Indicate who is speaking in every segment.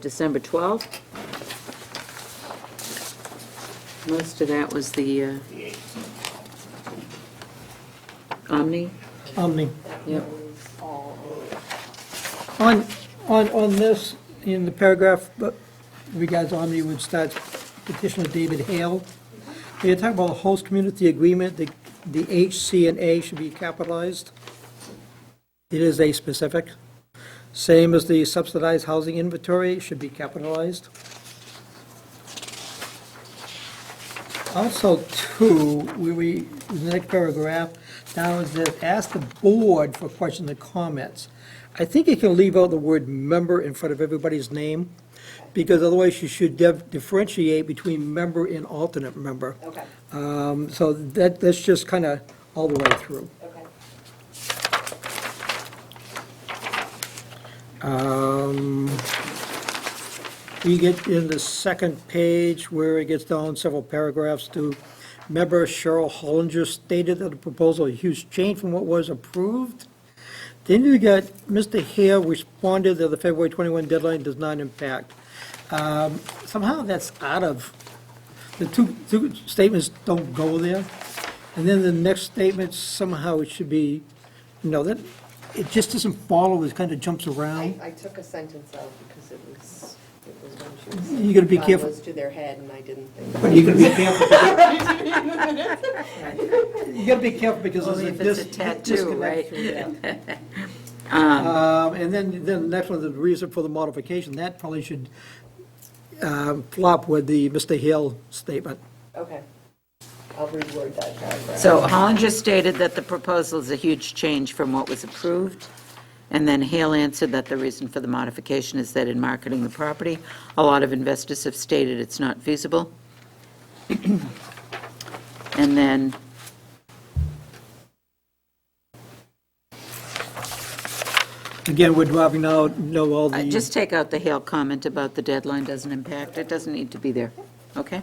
Speaker 1: December 12th. Most of that was the uh, Omni.
Speaker 2: Omni.
Speaker 1: Yep.
Speaker 2: On, on, on this, in the paragraph, but regards Omni, which starts petitioner David Hale, they talk about a host community agreement, the, the H, C, and A should be capitalized. It is A specific. Same as the subsidized housing inventory should be capitalized. Also, too, we, we, in the next paragraph, down is that, ask the board for questions and comments. I think you can leave out the word member in front of everybody's name, because otherwise you should dif- differentiate between member and alternate member.
Speaker 3: Okay,
Speaker 2: Um, So that, that's just kind of all the way through.
Speaker 3: okay.
Speaker 2: Um, We get in the second page where it gets down several paragraphs to, member Cheryl Hollinger stated that the proposal is a huge change from what was approved. Then you got, Mr. Hare responded that the February 21 deadline does not impact. Um, Somehow that's out of, the two, two statements don't go there. And then the next statement, somehow it should be, you know, that, it just doesn't follow, it kind of jumps
Speaker 3: I,
Speaker 2: around.
Speaker 3: I took a sentence out because it was, it was when she was.
Speaker 2: You gotta be
Speaker 3: gun
Speaker 2: careful.
Speaker 3: was to their head and I didn't think.
Speaker 2: But you gotta be careful. You gotta be careful because there's
Speaker 1: Only
Speaker 2: a
Speaker 1: if it's a
Speaker 2: dis- disconnect.
Speaker 1: tattoo, right?
Speaker 2: through that. Um, And then, then the next one, the reason for the modification, that probably should um, flop with the Mr. Hill statement.
Speaker 3: Okay. I'll reword that paragraph.
Speaker 1: So Hollinger stated that the proposal is a huge change from what was approved. And then Hale answered that the reason for the modification is that in marketing the property, a lot of investors have stated it's not feasible. And then
Speaker 2: Again, we're dropping out, know all
Speaker 1: Uh,
Speaker 2: the.
Speaker 1: Just take out the Hale comment about the deadline doesn't impact. It doesn't need to be there, okay?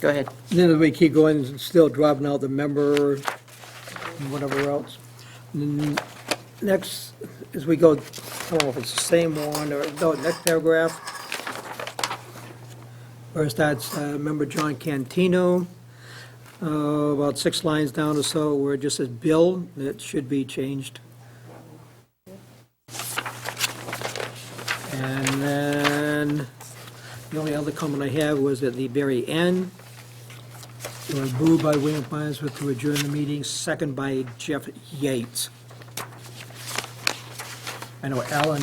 Speaker 1: Go ahead.
Speaker 2: Then we keep going, and still dropping out the member, and whatever else. Mm, Next, as we go, I don't know if it's the same one, or, no, next paragraph. First, that's uh, member John Cantino, Uh, about six lines down or so, where it just says Bill, that should be changed. And then, the only other comment I have was at the very end, it was moved by William Farnsworth to adjourn the meeting, second by Jeff Yates. I know Alan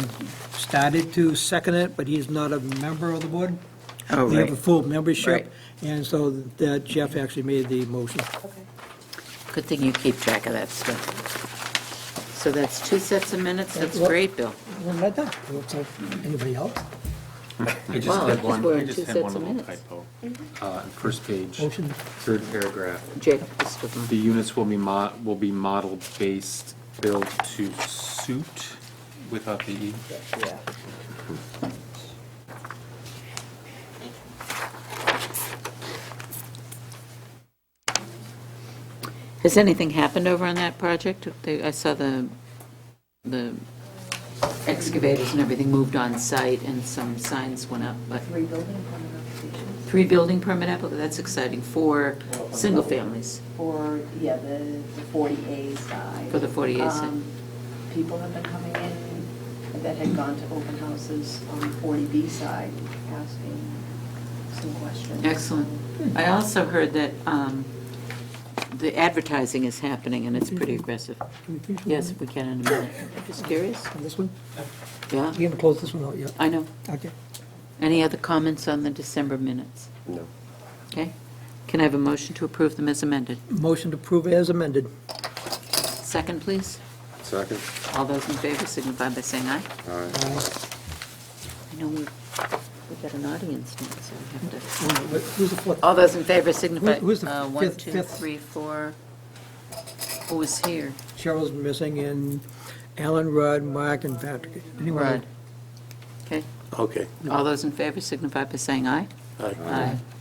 Speaker 2: started to second it, but he's not a member of the board.
Speaker 1: Oh,
Speaker 2: They have a
Speaker 1: right.
Speaker 2: full membership,
Speaker 1: Right.
Speaker 2: and so that Jeff actually made the motion.
Speaker 3: Okay.
Speaker 1: Good thing you keep track of that stuff. So that's two sets of minutes. That's great, Bill.
Speaker 2: Well, not that, looks like anybody else?
Speaker 4: I just
Speaker 1: Wow, I
Speaker 4: had
Speaker 1: just
Speaker 4: one,
Speaker 1: were
Speaker 4: I
Speaker 1: in two
Speaker 4: just
Speaker 1: sets
Speaker 4: had one
Speaker 1: of
Speaker 4: little
Speaker 1: minutes. Mm-hmm.
Speaker 4: typo. Uh, First page,
Speaker 2: Motion.
Speaker 4: third paragraph.
Speaker 1: Jake, this was one.
Speaker 4: The units will be mo, will be model-based, built to suit without the E.
Speaker 3: Yeah.
Speaker 1: Has anything happened over on that project? They- I saw the, the excavators and everything moved on site and some signs went up, but. Three building permit applications? Three building permit applications, that's exciting, for single families.
Speaker 5: for, yeah, the the 40A side.
Speaker 1: For the 40A side.
Speaker 5: Um, People have been coming in that had gone to open houses on the 40B side, asking some questions.
Speaker 1: Excellent. I also heard that um, the advertising is happening, and it's
Speaker 2: Mm-hmm.
Speaker 1: pretty aggressive. Yes, if we can in a minute. Just curious,
Speaker 2: On this one?
Speaker 1: yeah,
Speaker 2: You haven't closed this one out yet.
Speaker 1: I know.
Speaker 2: Okay.
Speaker 1: Any other comments on the December minutes?
Speaker 4: No.
Speaker 1: Okay. Can I have a motion to approve them as amended?
Speaker 2: Motion to approve as amended.
Speaker 1: Second, please.
Speaker 6: Second?
Speaker 1: All those in favor signify by saying aye.
Speaker 6: All right.
Speaker 2: Aye.
Speaker 1: I know we've, we've got an audience now, so we have to.
Speaker 2: Who's the fourth?
Speaker 1: All those in favor signify.
Speaker 2: Who- who's the
Speaker 1: uh, One,
Speaker 2: fifth-
Speaker 1: two,
Speaker 2: fifth?
Speaker 1: three, four. Who is here?
Speaker 2: Cheryl's missing, and Alan, Rudd, Mark, and Patrick. Anyone?
Speaker 1: Rudd. Okay.
Speaker 7: Okay,
Speaker 1: All those in favor signify by saying aye.
Speaker 7: Aye.
Speaker 1: Aye.